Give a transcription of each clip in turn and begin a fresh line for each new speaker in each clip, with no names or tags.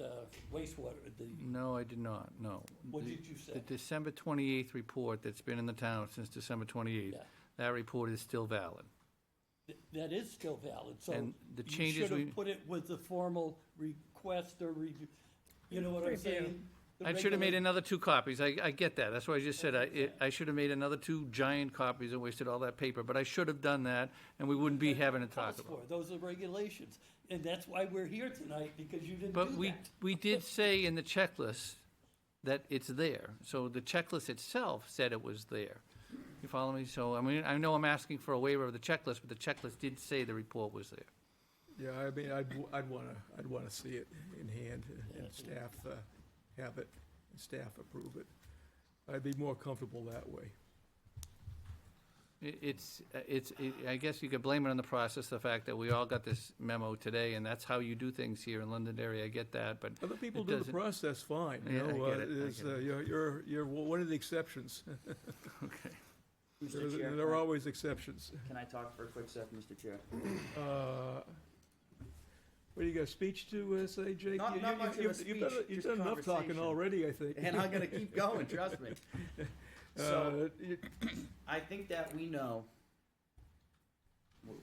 uh, wastewater, the,
No, I did not, no.
what
The-
did you
The
say?
December 28th report that's been in the town since December 28th,
Yeah.
that report is still valid.
Th- That is still valid, so.
And the
you
changes
should
we-
have put it with the formal request or review, you know what I'm saying? The
I should have made
regula-
another two copies, I, I get that, that's why I just said, I, it- I should have made another two giant copies and wasted all that paper, but I should have done that, and we wouldn't be having to talk
calls
about it.
for. Those are regulations, and that's why we're here tonight, because you didn't do that.
But we, we did say in the checklist that it's there, so the checklist itself said it was there. You follow me? So, I mean, I know I'm asking for a waiver of the checklist, but the checklist did say the report was there.
Yeah, I mean, I'd, w- I'd wanna, I'd wanna see it in hand and staff, uh, have it, and staff approve it. I'd be more comfortable that way.
I- It's, uh, it's, i- I guess you could blame it on the process, the fact that we all got this memo today, and that's how you do things here in Londonderry, I get that, but
Other people
It
do the
doesn't-
process fine, you
Yeah, I
know, uh,
get it, I
it's,
get
uh,
it.
you're, you're, you're one of the exceptions.
Mr. Chair,
There
can
there are
I-
always exceptions.
can I talk for a quick sec, Mr. Chair?
Uh, What, you got a speech to uh, say, Jake?
Not-
You-
not
you-
much of
you've-
a
you've done-
speech,
You've
just
done enough talking
conversation.
already, I think.
And I'm gonna keep going, trust me. So,
Uh, you-
I think that we know, w-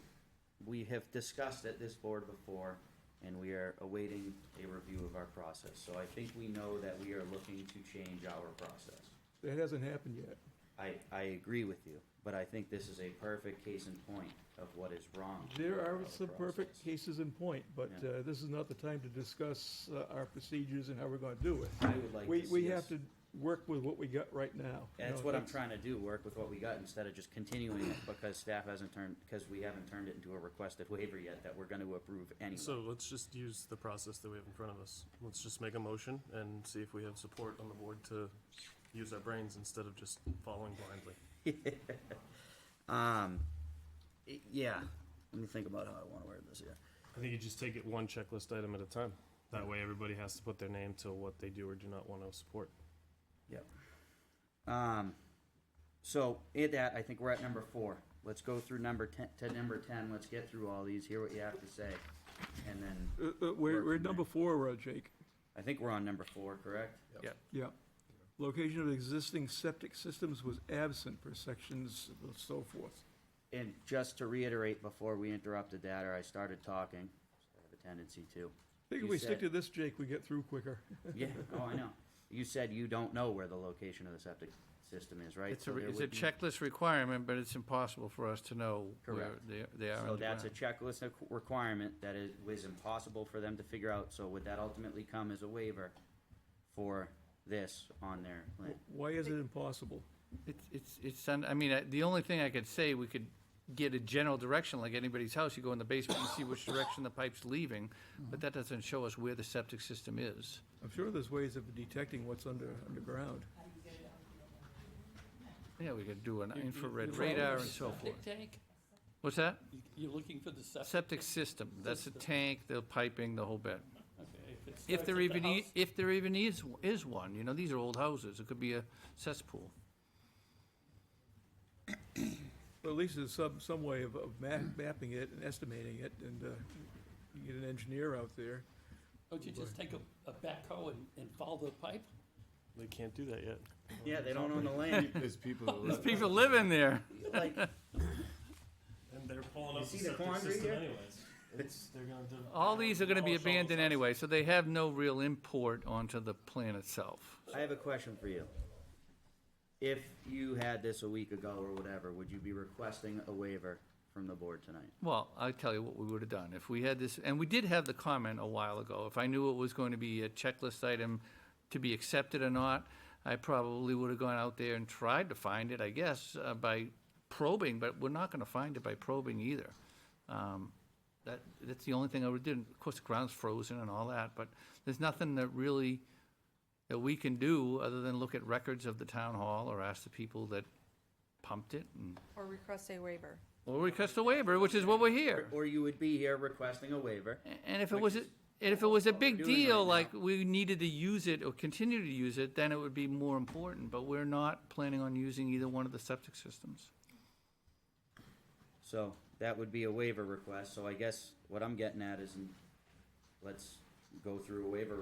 we have discussed at this board before, and we are awaiting a review of our process. So I think we know that we are looking to change our process.
That hasn't happened yet.
I, I agree with you, but I think this is a perfect case in point of what is wrong.
There
with
are
our
some perfect
process.
cases in point, but
Yeah.
uh, this is not the time to discuss uh, our procedures and how we're going to do it.
I would like
We,
to
we
see
have
us-
to work with what we got right now. you
That's
know,
what I'm trying to do, work with what we got instead of just continuing it because staff hasn't turned, because we haven't turned it into a requested waiver yet that we're gonna approve anyway.
So let's just use the process that we have in front of us. Let's just make a motion and see if we have support on the board to use our brains instead of just following blindly.
Um, y- yeah, let me think about how I wanna word this here.
I think you just take it one checklist item at a time. That way, everybody has to put their name to what they do or do not want to support.
Yep. Um, so at that, I think we're at number four. Let's go through number ten, to number ten, let's get through all these, hear what you have to say. And then,
Uh, uh, We're,
work
we're
from
number four, uh, Jake.
I think we're on number four, correct?
Yeah. Location of existing septic systems was absent for sections and so forth.
And just to reiterate, before we interrupted that, or I started talking, I have a tendency to.
I think
You
if we stick
said-
to this, Jake, we get through quicker.
Yeah, oh, I know. You said you don't know where the location of the septic system is, right?
it's
So
a,
there
it's a
would be-
checklist requirement, but it's impossible for us to know where
Correct.
they, they are on
So
the
that's a
ground.
checklist of requirement that is, was impossible for them to figure out, so would that ultimately come as a waiver for this on their plan?
Why is it impossible?
It's, it's, it's, un- I mean, I- the only thing I could say, we could get a general direction, like anybody's house, you go in the basement and see which direction the pipe's leaving, but that doesn't show us where the septic system is.
I'm sure there's ways of detecting what's under, underground.
Yeah, we could do an
You- you-
infrared
you're following
radar
the
and so forth.
Septic tank?
What's that?
You- You're looking for the septic?
Septic system, that's the
System.
tank, the piping, the whole bit.
Okay, it starts
If
at
there
the
even, e i-
house-
if there even is, is one, you know, these are old houses, it could be a cesspool.
Well, at least there's some, some way of, of ma- mapping it and estimating it, and, uh, you get an engineer out there.
Don't you just take a, a backhoe and, and follow the pipe?
They can't do that yet.
Yeah, they don't own the land,
There's people that live.
People live in there.
like,
And they're pulling
up You the see the septic quandary system here?
anyways. It's, they're gonna.
All these are gonna be abandoned anyway, so they have no real import onto the plan itself.
I have a question for you. If you had this a week ago or whatever, would you be requesting a waiver from the board tonight?
Well, I'll tell you what we would have done. If we had this, and we did have the comment a while ago, if I knew it was going to be a checklist item to be accepted or not, I probably would have gone out there and tried to find it, I guess, uh, by probing, but we're not gonna find it by probing either. Um, That, that's the only thing I would do. And Of course, the ground's frozen and all that, but there's nothing that really, that we can do other than look at records of the town hall or ask the people that pumped it and,
Or request a waiver.
or request a waiver, which is what we're here.
Or you would be here requesting a waiver?
And if it
Which
was, a-
is
and if it was a
what we're
big
doing right
deal,
now.
like we needed to use it or continue to use it, then it would be more important, but we're not planning on using either one of the septic systems.
So that would be a waiver request, so I guess what I'm getting at is, let's go through a waiver